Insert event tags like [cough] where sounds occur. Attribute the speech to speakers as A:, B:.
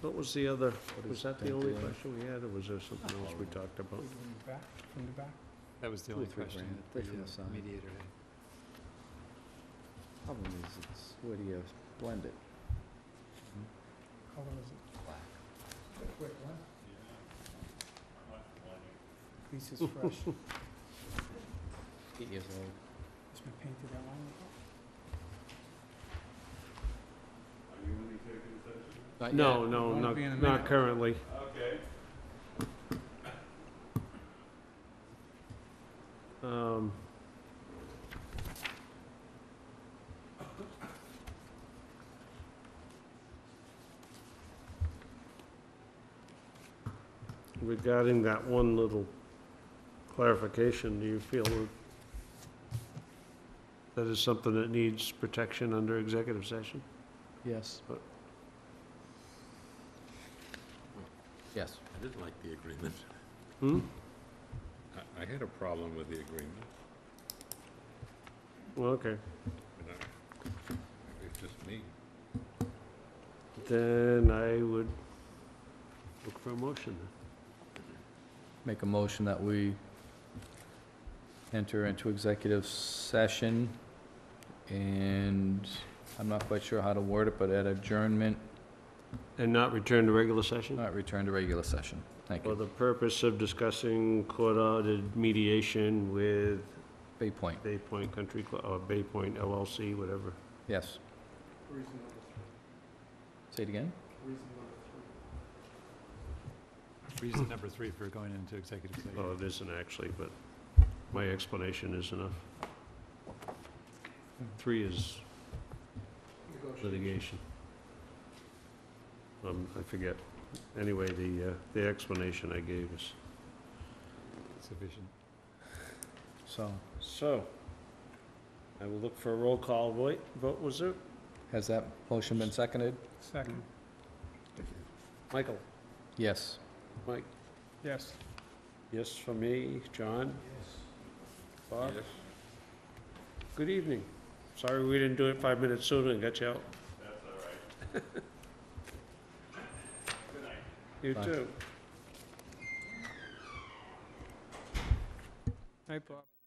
A: What was the other, was that Oh. the only
B: Thank you.
A: question we had, or was there something else we talked about?
C: From the back?
D: That was the
B: Two or
D: only
B: three
D: question
B: grand,
D: that
B: they should
D: the
B: have signed.
D: mediator had.
B: Problem is, it's, where do you blend it?
C: Color is it?
B: Black.
C: Quick one? This [laughs] is fresh. It's
B: Eight years old.
C: been painted that long ago.
B: Not
A: No,
B: yet.
A: no,
C: Uh, Won't
A: not,
C: be in a
A: not
C: minute.
A: currently. Okay. Um. Regarding that one little clarification, do you feel that that is something that needs protection under executive session?
B: Yes.
A: But-
B: Yes.
E: I didn't like the agreement.
A: Hmm?
E: I, I had a problem with the agreement.
A: Well, Okay.
E: but I- maybe It's just me.
A: Then I would look for a motion.
B: Make a motion that we enter into executive session, and I'm not quite sure how to word it, but at adjournment,
A: And not return to regular session?
B: not return to regular session. Thank
A: For
B: you.
A: the purpose of discussing court-ordered mediation with
B: Bay Point,
A: Bay Point Country Club, or Bay Point LLC, whatever.
B: yes.
C: Reason number three.
B: Say it again?
C: Reason number three.
D: Reason number three for going into executive
A: Oh,
D: session.
A: it isn't actually, but my explanation is enough. Three is litigation. Um, I forget. Anyway, the, uh, the explanation I gave is.
D: Sufficient.
B: So,
A: So, I will look for a roll call vote, vote was it?
B: has that motion been seconded?
C: Second,
A: Michael?
B: Yes.
A: Mike.
C: yes.
A: Yes for me, John? Bob?
E: Yes.
A: Good evening. Sorry we didn't do it five minutes sooner and got you out. That's all right. [laughs]
B: Bye.
A: You too.
C: Hi, Bob.